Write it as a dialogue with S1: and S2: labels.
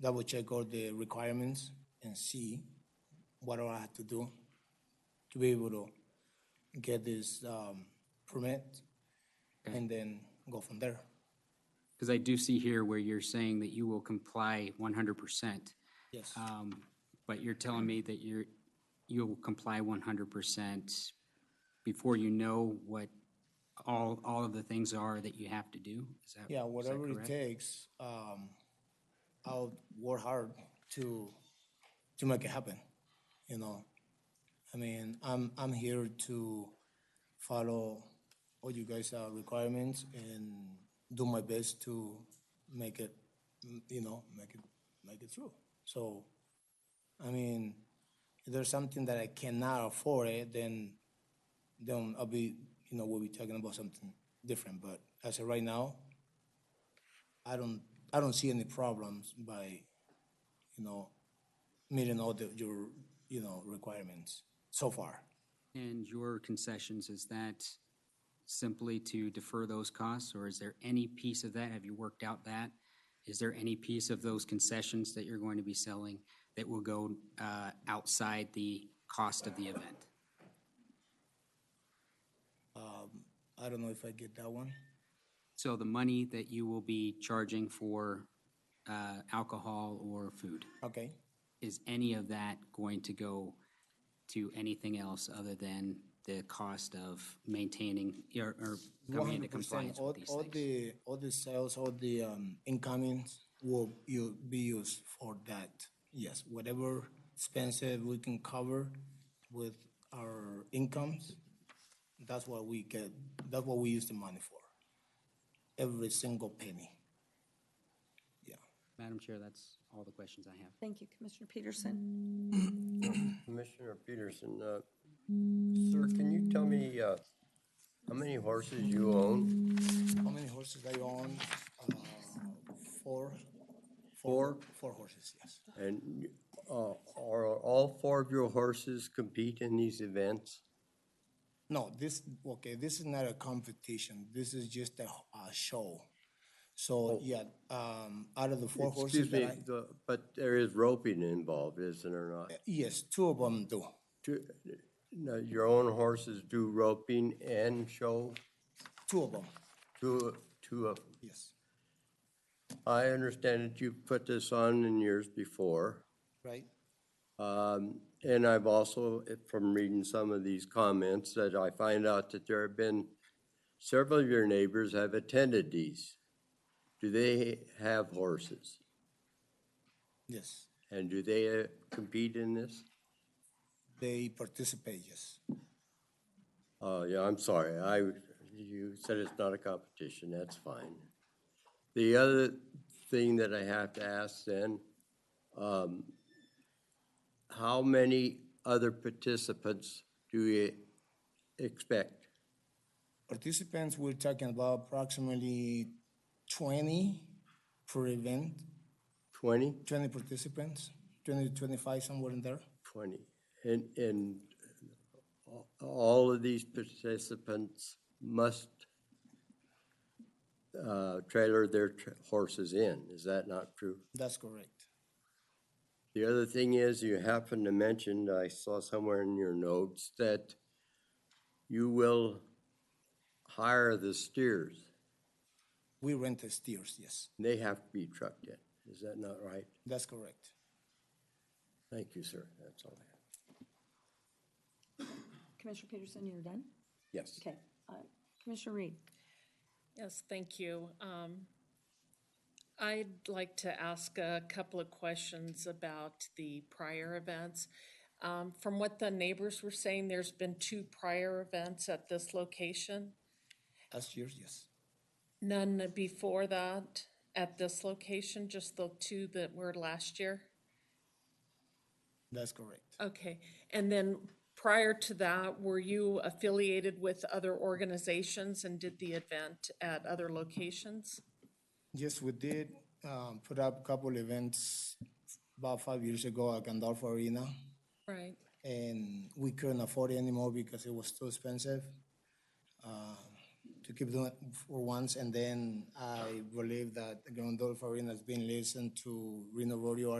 S1: double check all the requirements and see what do I have to do to be able to get this um, permit and then go from there.
S2: Because I do see here where you're saying that you will comply one hundred percent.
S1: Yes,
S2: Um, but you're telling me that you're, you'll comply one hundred percent before you know what all, all of the things are that you have to do? Is that?
S1: yeah,
S2: is that
S1: whatever it
S2: correct?
S1: takes, um, I'll work hard to, to make it happen, you know? I mean, I'm, I'm here to follow all you guys' uh, requirements and do my best to make it, mm, you know, make it, make it through. So, I mean, if there's something that I cannot afford it, then, then I'll be, you know, we'll be talking about something different. But as of right now, I don't, I don't see any problems by, you know, meeting all the, your, you know, requirements so far.
S2: And your concessions, is that simply to defer those costs, or is there any piece of that? Have you worked out that? Is there any piece of those concessions that you're going to be selling that will go uh, outside the cost of the event?
S1: I don't know if I get that one.
S2: So the money that you will be charging for uh, alcohol or food,
S1: Okay.
S2: is any of that going to go to anything else other than the cost of maintaining or or coming into
S1: 100%.
S2: compliance
S1: all,
S2: with these
S1: all
S2: things?
S1: the all the sales, all the um, incomings will you be used for that. Yes, whatever expenses we can cover with our incomes, that's what we get. That's what we use the money for. Every single penny. Yeah.
S2: Madam Chair, that's all the questions I have.
S3: Thank you, Commissioner Peterson.
S4: Commissioner Peterson, uh, sir, can you tell me uh, how many horses you own?
S1: How many horses are you on? Uh, four.
S4: Four?
S1: Four horses. Yes.
S4: And uh, are all four of your horses compete in these events?
S1: No, this, okay, this is not a competition. This is just a, a show. So, yeah, um, out of the four horses
S4: Oh. Excuse me,
S1: that I,
S4: the- but there is roping involved, isn't there not?
S1: yes, two of them do.
S4: Do- no, Your own horses do roping and show,
S1: Two of them,
S4: two, two of them.
S1: yes.
S4: I understand that you put this on in years before.
S1: Right?
S4: Um, And I've also, eh, from reading some of these comments, that I find out that there have been, several of your neighbors have attended these. Do they have horses?
S1: Yes.
S4: And do they eh, compete in this?
S1: They participate, yes.
S4: Oh, yeah, I'm sorry, I, you said it's not a competition, that's fine. The other thing that I have to ask then, um, how many other participants do you expect?
S1: Participants, we're talking about approximately twenty per event,
S4: 20?
S1: twenty participants, twenty to twenty-five, somewhere in there.
S4: 20. And, and a- all of these participants must uh, trailer their tr- horses in, is that not true?
S1: That's correct.
S4: The other thing is, you happened to mention, I saw somewhere in your notes, that you will hire the steers.
S1: We rent the steers, yes.
S4: They have to be trucked in, is that not right?
S1: That's correct.
S4: Thank you, sir, that's all I have.
S3: Commissioner Peterson, you're done?
S4: Yes.
S3: Okay. Uh, Commissioner Reed?
S5: Yes, thank you. Um, I'd like to ask a couple of questions about the prior events. Um, From what the neighbors were saying, there's been two prior events at this location,
S1: That's yours, yes.
S5: none before that at this location, just the two that were last year?
S1: That's correct.
S5: Okay, and then prior to that, were you affiliated with other organizations and did the event at other locations?
S1: Yes, we did um, put up a couple events about five years ago at Gandalf Arena,
S5: Right.
S1: and we couldn't afford it anymore because it was too expensive uh, to keep doing it for once. And then I believe that the Grondolf Arena has been listened to Reno Rodeo